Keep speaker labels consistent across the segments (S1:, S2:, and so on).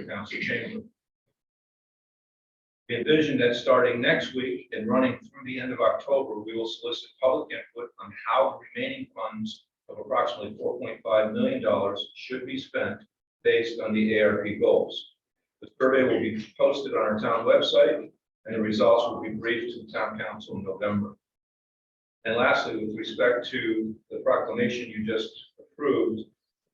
S1: Council Chamber. We Envision that starting next week and running through the end of October, we will solicit public input on how the remaining funds of approximately four point five million dollars should be spent based on the ARP goals. The survey will be posted on our town website, and the results will be briefed to the town council in November. And lastly, with respect to the proclamation you just approved,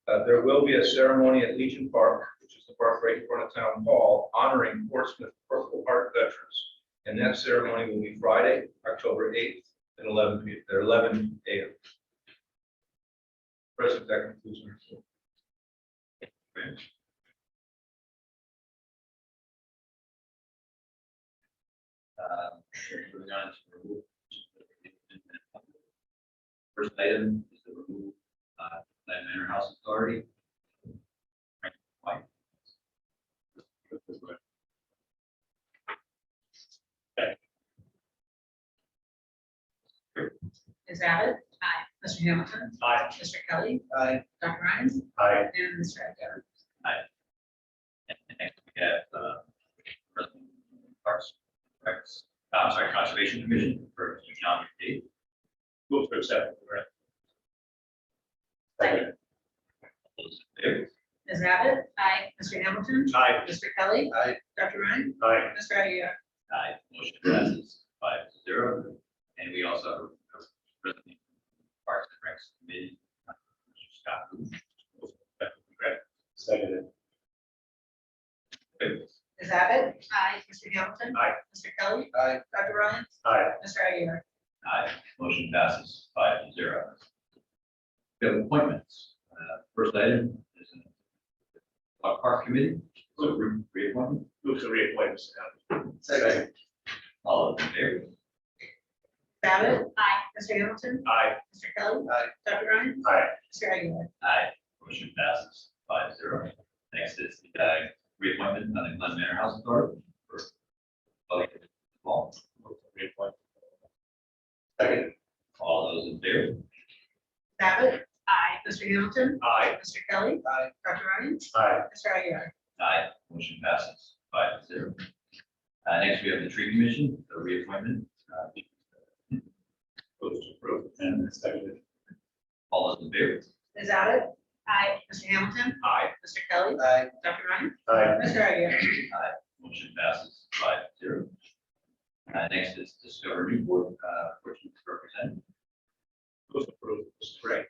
S1: uh, there will be a ceremony at Legion Park, which is the park right in front of town hall, honoring Portsmouth Purple Heart veterans. And that ceremony will be Friday, October eighth at eleven, p- at eleven AM. President, that concludes my report.
S2: Uh, Moving on to remove. First item is the remove, uh, that manor house authority. Mike.
S3: Ms. Abbott? Aye. Mr. Hamilton?
S2: Aye.
S3: Mr. Kelly?
S2: Aye.
S3: Dr. Ryan?
S2: Aye.
S3: And Mr. Echo.
S2: And next we have, uh, Parks, Recs, uh, I'm sorry, Conservation Commission for John McDade. Move to accept.
S3: Second.
S2: All those in favor?
S3: Ms. Abbott? Aye. Mr. Hamilton?
S2: Aye.
S3: Mr. Kelly?
S2: Aye.
S3: Dr. Ryan?
S2: Aye.
S3: Mr. Aguirre?
S2: Aye, motion passes five to zero, and we also have a president of Parks and Recs Committee, uh, Mr. Scott. Booth.
S4: Seconded.
S3: Ms. Abbott? Aye. Mr. Hamilton?
S2: Aye.
S3: Mr. Kelly?
S4: Aye.
S3: Dr. Ryan?
S4: Aye.
S3: Mr. Aguirre?
S2: Aye, motion passes five to zero. We have appointments, uh, first item is a uh, Park Committee, so re- reappointment.
S4: Move to reappoint Mr. Allen.
S2: Second. All of them there.
S3: Ms. Abbott? Aye. Mr. Hamilton?
S4: Aye.
S3: Mr. Kelly?
S4: Aye.
S3: Dr. Ryan?
S4: Aye.
S3: Mr. Aguirre?
S2: Aye, motion passes five zero. Next is the uh, reappointment on the Glen Manor House Authority. for public involvement.
S4: Move to reappoint. Seconded.
S2: All those in favor?
S3: Ms. Abbott? Aye. Mr. Hamilton?
S4: Aye.
S3: Mr. Kelly?
S4: Aye.
S3: Dr. Ryan?
S4: Aye.
S3: Mr. Aguirre?
S2: Aye, motion passes five to zero. Uh, next, we have the tree commission, the reappointment. uh,
S4: Move to approve. And seconded.
S2: All those in favor?
S3: Ms. Abbott? Aye. Mr. Hamilton?
S2: Aye,
S3: Mr. Kelly?
S4: Aye.
S3: Dr. Ryan?
S4: Aye.
S3: Mr. Aguirre?
S2: motion passes five to zero. Uh, next is discovery board, uh, fourteen representative.
S4: Move to approve. Mr. Gray.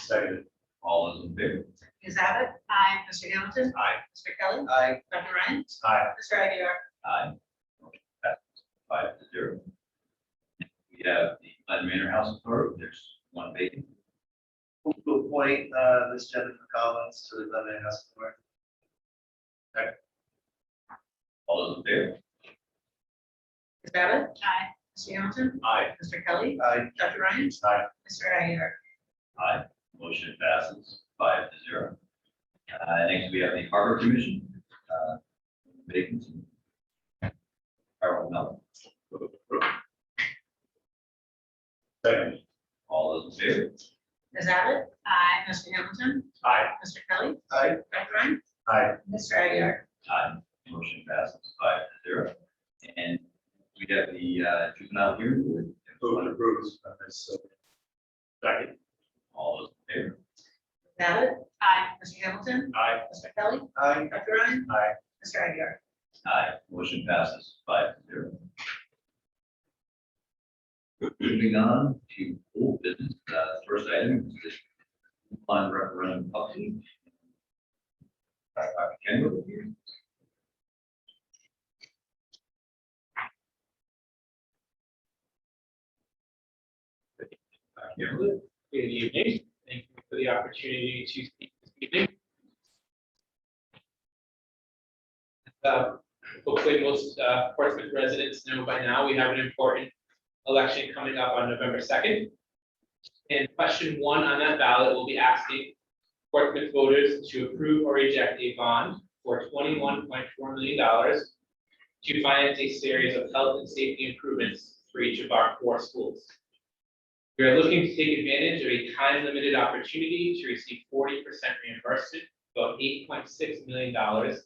S4: Seconded.
S2: All those in favor?
S3: Ms. Abbott? Aye. Mr. Hamilton?
S4: Aye.
S3: Mr. Kelly?
S4: Aye.
S3: Dr. Ryan?
S4: Aye.
S3: Mr. Aguirre?
S2: Aye. Motion passes Five to zero. We have the Glen Manor House Authority, there's one vacant.
S4: Move to appoint, uh, Ms. Jennifer Collins to the Lebanon House Board.
S2: All those in favor?
S3: Ms. Abbott? Aye. Mr. Hamilton?
S2: Aye.
S3: Mr. Kelly?
S4: Aye.
S3: Dr. Ryan?
S4: Aye.
S3: Mr. Aguirre?
S2: Aye. Motion passes five to zero. Uh, next we have the Harbor Commission. uh, Vacancy. Harold Melton.
S4: Seconded.
S2: All those in favor?
S3: Ms. Abbott? Aye. Mr. Hamilton?
S4: Aye.
S3: Mr. Kelly?
S4: Aye.
S3: Dr. Ryan?
S4: Aye.
S3: Mr. Aguirre?
S2: Aye. Motion passes five to zero. And we have the uh, juvenile hearing board.
S4: Move to approve. Uh, so- Second.
S2: All those in favor?
S3: Ms. Abbott? Aye. Mr. Hamilton?
S4: Aye.
S3: Mr. Kelly?
S4: Aye.
S3: Dr. Ryan?
S4: Aye.
S3: Mr. Aguirre?
S2: Aye, motion passes five to zero. Moving on to old business, uh, first item is this on referendum update. Uh, Dr. Kendall here. Dr. Kendall,
S5: Good evening. Thank you for the opportunity to speak this evening. Uh, Hopefully, most uh, Portsmouth residents know by now, we have an important election coming up on November 2nd. And question one on that ballot will be asking Portsmouth voters to approve or reject a bond for $21.4 million to finance a series of health and safety improvements for each of our four schools. We are looking to take advantage of a time-limited opportunity to receive forty percent reimbursement, about eight point six million dollars